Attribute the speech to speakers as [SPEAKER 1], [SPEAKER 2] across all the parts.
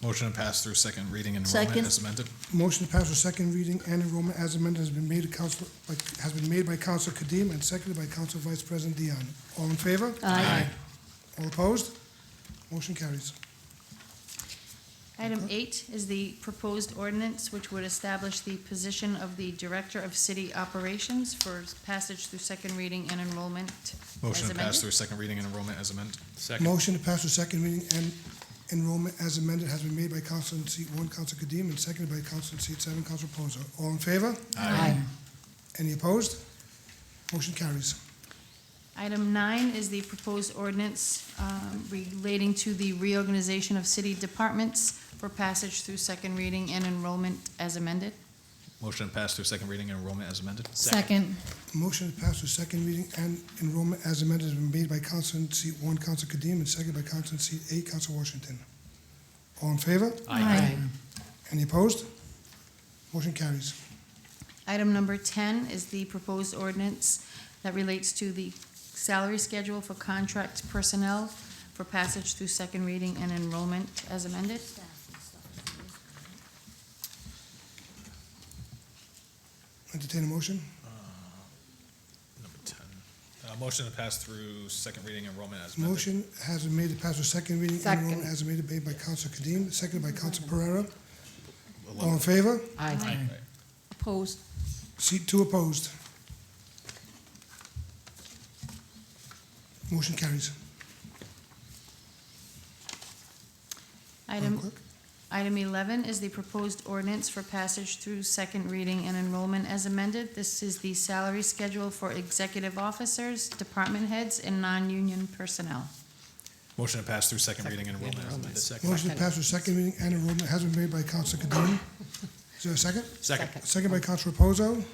[SPEAKER 1] Motion to pass through second reading and enrollment
[SPEAKER 2] Second.
[SPEAKER 1] as amended.
[SPEAKER 3] Motion to pass the second reading and enrollment as amended has been made to council, by- has been made by Council Kadim and seconded by Council Vice President Dion. All in favor?
[SPEAKER 2] Aye.
[SPEAKER 3] All opposed? Motion carries.
[SPEAKER 4] Item eight is the proposed ordinance which would establish the position of the Director of City Operations for passage through second reading and enrollment
[SPEAKER 1] Motion
[SPEAKER 4] as
[SPEAKER 1] to pass
[SPEAKER 4] amended.
[SPEAKER 1] through second reading and enrollment as amended.
[SPEAKER 5] Second.
[SPEAKER 3] Motion to pass the second reading and enrollment as amended has been made by Council in seat one, Council Kadim, and seconded by Council in seat seven, Council Reposo. All in favor?
[SPEAKER 2] Aye.
[SPEAKER 3] Any opposed? Motion carries.
[SPEAKER 4] Item nine is the proposed ordinance um, relating to the reorganization of city departments for passage through second reading and enrollment as amended.
[SPEAKER 1] Motion to pass through second reading and enrollment as amended.
[SPEAKER 2] Second.
[SPEAKER 3] Motion to pass the second reading and enrollment as amended has been made by Council in seat one, Council Kadim, and seconded by Council in seat eight, Council Washington. All in favor? Any opposed? Motion carries.
[SPEAKER 4] Item number 10 is the proposed ordinance that relates to the salary schedule for contract personnel for passage through second reading and enrollment as amended.
[SPEAKER 3] Entertain a motion.
[SPEAKER 1] Number ten. Uh, motion to pass through second reading and enrollment as amended.
[SPEAKER 3] Motion has been made to pass the second reading and
[SPEAKER 2] Second.
[SPEAKER 3] enrollment has been made by Council Kadim, seconded by Council Pereira. All in favor?
[SPEAKER 2] Aye.
[SPEAKER 1] Right.
[SPEAKER 2] Opposed.
[SPEAKER 3] Seat two opposed. Motion carries. Madam
[SPEAKER 4] Item,
[SPEAKER 3] Clerk?
[SPEAKER 4] item 11 is the proposed ordinance for passage through second reading and enrollment as amended. This is the salary schedule for executive officers, department heads, and non-union personnel.
[SPEAKER 1] Motion to pass through second reading and enrollment as amended.
[SPEAKER 3] Motion to pass the second reading and enrollment has been made by Council Kadim. Is there a second?
[SPEAKER 1] Second.
[SPEAKER 3] Second by Council Reposo.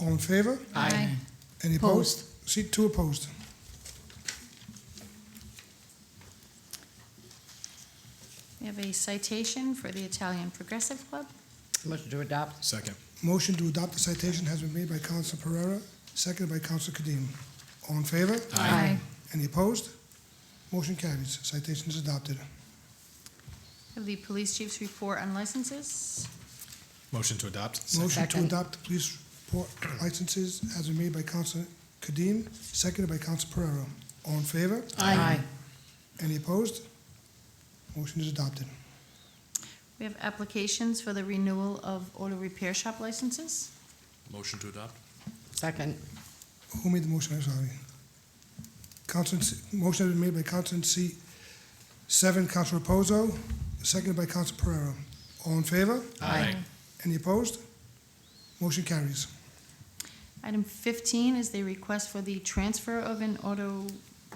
[SPEAKER 3] All in favor?
[SPEAKER 2] Aye.
[SPEAKER 3] Any opposed? Seat two opposed.
[SPEAKER 4] We have a citation for the Italian Progressive Club.
[SPEAKER 6] Motion to adopt.
[SPEAKER 1] Second.
[SPEAKER 3] Motion to adopt the citation has been made by Council Pereira, seconded by Council Kadim. All in favor?
[SPEAKER 2] Aye.
[SPEAKER 3] Any opposed? Motion carries. Citation is adopted.
[SPEAKER 4] We have the police chief's report on licenses.
[SPEAKER 1] Motion to adopt. Second.
[SPEAKER 3] Motion to
[SPEAKER 6] Second.
[SPEAKER 3] adopt the police report licenses has been made by Council Kadim, seconded by Council Pereira. All in favor?
[SPEAKER 6] Aye.
[SPEAKER 3] Any opposed? Motion is adopted.
[SPEAKER 4] We have applications for the renewal of auto repair shop licenses.
[SPEAKER 5] Motion to adopt?
[SPEAKER 6] Second.
[SPEAKER 3] Who made the motion? I'm sorry. Council, motion has been made by Council in seat seven, Council Reposo, seconded by Council Pereira. All in favor?
[SPEAKER 6] Aye.
[SPEAKER 3] Any opposed? Motion carries.
[SPEAKER 4] Item 15 is the request for the transfer of an auto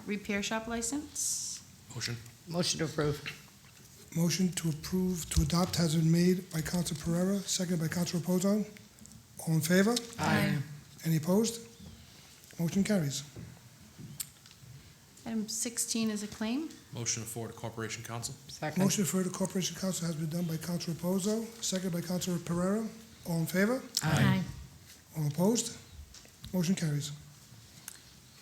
[SPEAKER 4] repair shop license.
[SPEAKER 5] Motion?
[SPEAKER 6] Motion to approve.
[SPEAKER 3] Motion to approve, to adopt has been made by Council Pereira, seconded by Council Reposo. All in favor?
[SPEAKER 6] Aye.
[SPEAKER 3] Any opposed? Motion carries.
[SPEAKER 4] Item 16 is a claim.
[SPEAKER 5] Motion to forward to Corporation Council?
[SPEAKER 6] Second.
[SPEAKER 3] Motion for the Corporation Council has been done by Council Reposo, seconded by Council Pereira. All in favor?
[SPEAKER 2] Aye.
[SPEAKER 3] All opposed? Motion carries.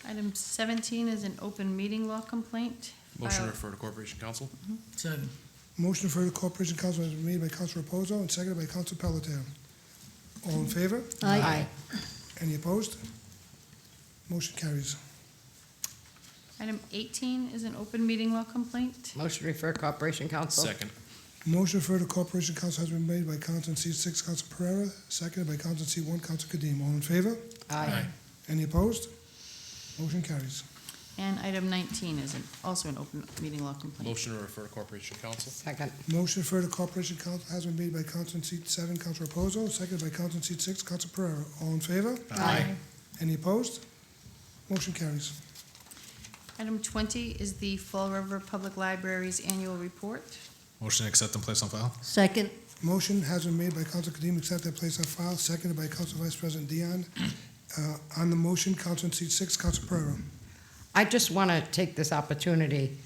[SPEAKER 4] Item 17 is an open meeting law complaint.
[SPEAKER 5] Motion to
[SPEAKER 4] filed-
[SPEAKER 5] refer to Corporation Council?
[SPEAKER 6] Second.
[SPEAKER 3] Motion for the Corporation Council has been made by Council Reposo and seconded by Council Pelletier. All in favor?
[SPEAKER 6] Aye.
[SPEAKER 3] Any opposed? Motion carries.
[SPEAKER 4] Item 18 is an open meeting law complaint.
[SPEAKER 6] Motion to refer Corporation Council.
[SPEAKER 5] Second.
[SPEAKER 3] Motion for the Corporation Council has been made by Council in seat six, Council Pereira, seconded by Council in seat one, Council Kadim. All in favor?
[SPEAKER 6] Aye.
[SPEAKER 3] Any opposed? Motion carries.
[SPEAKER 4] And item 19 is an- also an open meeting law complaint.
[SPEAKER 5] Motion to refer to Corporation Council?
[SPEAKER 6] Second.
[SPEAKER 3] Motion for the Corporation Council has been made by Council in seat seven, Council Reposo, seconded by Council in seat six, Council Pereira. All in favor?
[SPEAKER 6] Aye.
[SPEAKER 3] Any opposed? Motion carries.
[SPEAKER 4] Item 20 is the Fall River Public Library's annual report.
[SPEAKER 1] Motion to accept and place on file.
[SPEAKER 2] Second.
[SPEAKER 3] Motion has been made by Council Kadim, accept that place on file, seconded by Council Vice President Dion. Uh, On the motion, Council in seat six, Council Pereira.
[SPEAKER 6] I just want to take this opportunity.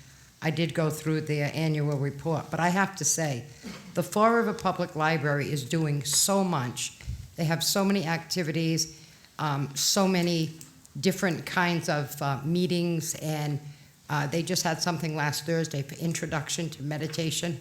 [SPEAKER 6] I did go through their annual report, but I have to say, the Fall River Public Library is doing so much. They have so many activities, um, so many different kinds of uh, meetings, and uh, they just had something last Thursday for introduction to meditation.